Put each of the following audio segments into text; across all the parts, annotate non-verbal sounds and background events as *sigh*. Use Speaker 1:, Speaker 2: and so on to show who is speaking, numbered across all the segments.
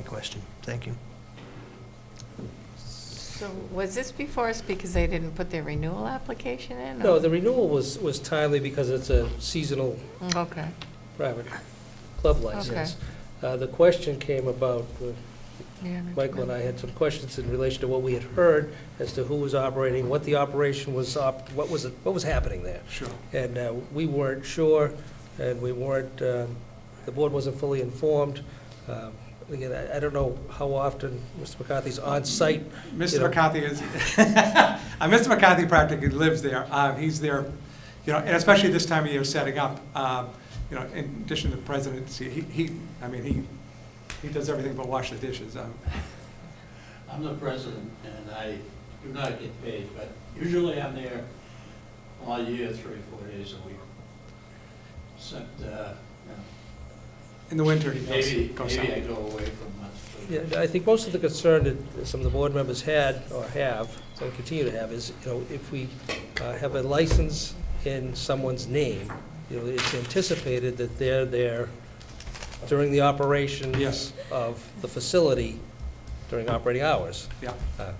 Speaker 1: question. Thank you.
Speaker 2: So was this before us because they didn't put their renewal application in? or-
Speaker 3: No, the renewal was, was timely because it's a seasonal
Speaker 2: Okay,
Speaker 3: private club license. Uh, The question came about, uh,
Speaker 2: yeah.
Speaker 3: Michael and I had some questions in relation to what we had heard as to who was operating, what the operation was, op- what was, it- what was happening there.
Speaker 1: Sure.
Speaker 3: And uh, we weren't sure, and we weren't, um, the board wasn't fully informed. Um, Again, I I don't know how often Mr. McCarthy's on-site, You
Speaker 4: Mr.
Speaker 3: know.
Speaker 4: McCarthy is, *laughs* uh, Mr. McCarthy practically lives there. Uh, He's there, you know, and especially this time of year, setting up, um, you know, in addition to the presidency, he, he, I mean, he, he does everything but wash the dishes. Um,
Speaker 5: I'm the president, and I do not get paid, but usually I'm there all year, three, four days a week. Except, uh,
Speaker 4: In the winter, he
Speaker 5: you know,
Speaker 4: goes,
Speaker 5: maybe,
Speaker 4: goes
Speaker 5: maybe I
Speaker 4: out.
Speaker 5: go away for months.
Speaker 3: Yeah, I think most of the concern that some of the board members had or have, and continue to have, is, you know, if we uh, have a license in someone's name, you know, it's anticipated that they're there during the operations
Speaker 4: Yes.
Speaker 3: of the facility during operating hours.
Speaker 4: Yeah.
Speaker 3: Uh,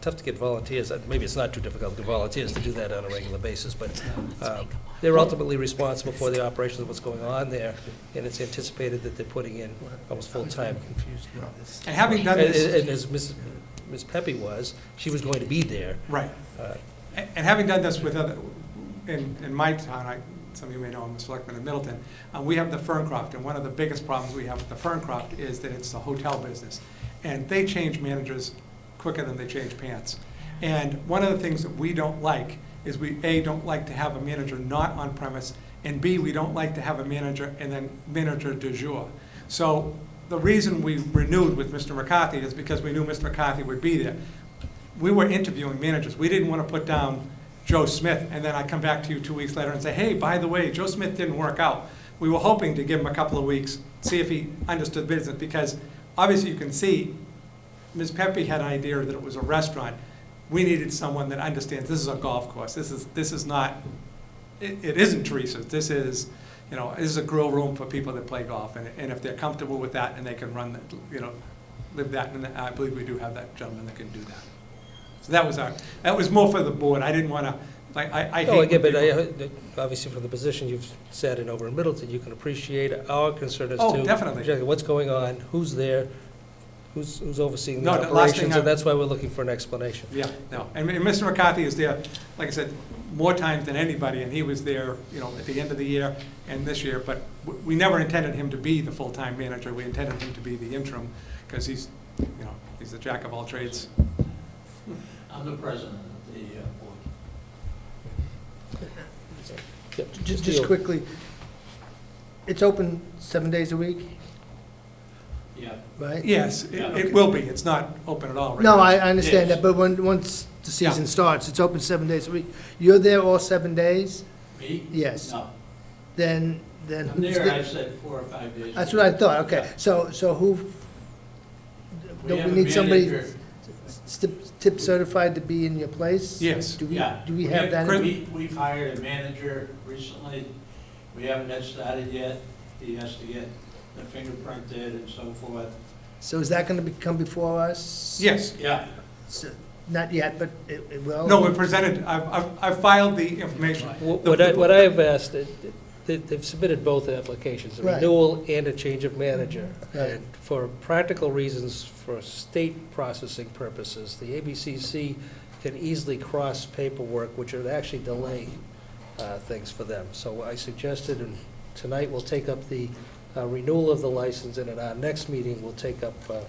Speaker 3: Tough to get volunteers, uh, maybe it's not too difficult to get volunteers to do that on a regular basis, but um, they're ultimately responsible for the operations of what's going on there, and it's anticipated that they're putting in almost full-time
Speaker 1: confused about this.
Speaker 4: And having done
Speaker 3: and and-
Speaker 4: this,
Speaker 3: and as Ms. Ms. Pepe was, she was going to be there.
Speaker 4: right,
Speaker 3: Uh,
Speaker 4: And and having done this with other, in, in my town, I, some of you may know, I'm a selectman in Middleton, uh, we have the Ferncroft, and one of the biggest problems we have with the Ferncroft is that it's the hotel business. And they change managers quicker than they change pants. And one of the things that we don't like is we, A, don't like to have a manager not on premise, and B, we don't like to have a manager and then manager de jour. So the reason we renewed with Mr. McCarthy is because we knew Mr. McCarthy would be there we were interviewing managers. We didn't want to put down Joe Smith, and then I come back to you two weeks later and say, hey, by the way, Joe Smith didn't work out. We were hoping to give him a couple of weeks, see if he understood business, because obviously you can see, Ms. Pepe had an idea that it was a restaurant. We needed someone that understands, this is a golf course, this is, this is not, it, it isn't Teresa's, this is, you know, this is a grill room for people that play golf, and, and if they're comfortable with that and they can run, that, you know, live that, and I believe we do have that gentleman that can do that. So that was our, that was more for the board, I didn't want to, like, I, I hate.
Speaker 3: No, again,
Speaker 4: when
Speaker 3: but Oh, I,
Speaker 4: people-
Speaker 3: uh, obviously from the position you've sat in over in Middleton, you can appreciate our concern as to.
Speaker 4: Oh, definitely.
Speaker 3: exactly What's going on, who's there, who's, who's overseeing the
Speaker 4: No, the last thing
Speaker 3: operations,
Speaker 4: I-
Speaker 3: and that's why we're looking for an explanation.
Speaker 4: Yeah, no, and and Mr. McCarthy is there, like I said, more times than anybody, and he was there, you know, at the end of the year and this year, but w- we never intended him to be the full-time manager, we intended him to be the interim, because he's, you know, he's the jack of all trades.
Speaker 5: I'm the president of the uh, board.
Speaker 3: Yeah,
Speaker 1: Just,
Speaker 3: the-
Speaker 1: just quickly, it's open seven days a week,
Speaker 5: Yeah,
Speaker 1: right?
Speaker 4: Yes, it it will be, it's not open at all right
Speaker 1: No,
Speaker 4: now.
Speaker 1: I, I understand
Speaker 5: Yes.
Speaker 1: that, but when, once the
Speaker 4: Yeah.
Speaker 1: season starts, it's open seven days a week. You're there all seven days,
Speaker 5: me?
Speaker 1: Yes.
Speaker 5: No,
Speaker 1: then, then.
Speaker 5: I'm
Speaker 1: who's
Speaker 5: there,
Speaker 1: the-
Speaker 5: I said four or five days. a
Speaker 1: That's
Speaker 5: week.
Speaker 1: what I thought, okay.
Speaker 5: Yeah.
Speaker 1: So, so who,
Speaker 5: We
Speaker 1: don't
Speaker 5: have a
Speaker 1: we need somebody
Speaker 5: manager.
Speaker 1: stip- tip certified to be in your place?
Speaker 4: Yes.
Speaker 1: Do we,
Speaker 5: Yeah.
Speaker 1: do we have that? in-
Speaker 5: We, we've hired a manager recently. We haven't got started yet. He has to get the fingerprinted and so forth.
Speaker 1: So is that gonna be, come before us?
Speaker 4: Yes,
Speaker 5: Yeah,
Speaker 1: So- Not yet, but it, it will?
Speaker 4: no, we presented, I've, I've- I've filed the information.
Speaker 3: Wh- What I, what I have asked, uh, they- they've submitted both applications, a
Speaker 1: Right.
Speaker 3: renewal and a change of manager.
Speaker 1: Right.
Speaker 3: And for practical reasons, for state processing purposes, the ABCC can easily cross paperwork, which would actually delay uh, things for them. So I suggested, and tonight we'll take up the uh, renewal of the license, and at our next meeting, we'll take up uh,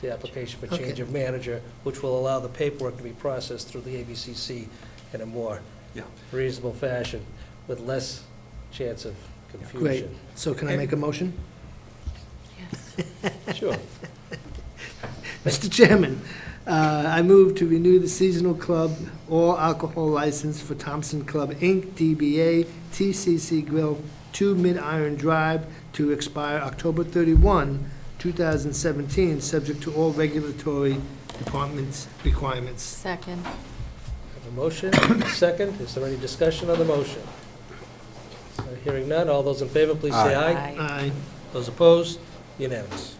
Speaker 3: the application for change
Speaker 1: Okay.
Speaker 3: of manager, which will allow the paperwork to be processed through the ABCC in a more
Speaker 4: Yeah.
Speaker 3: reasonable fashion with less chance of
Speaker 1: Great.
Speaker 3: confusion.
Speaker 1: So can I make a motion? *laughs*
Speaker 3: Sure.
Speaker 1: Mr. Chairman, uh, I move to renew the seasonal club all alcohol license for Thompson Club, Inc., DBA TCC Grill, 2 Mid Iron Drive, to expire October 31, 2017, subject to all regulatory departments' requirements.
Speaker 2: Second,
Speaker 3: Have a motion, a second. Is there any discussion on the motion? Hearing none. All those in favor, please say aye.
Speaker 2: aye.
Speaker 1: Aye.
Speaker 3: Those opposed? Unanimous.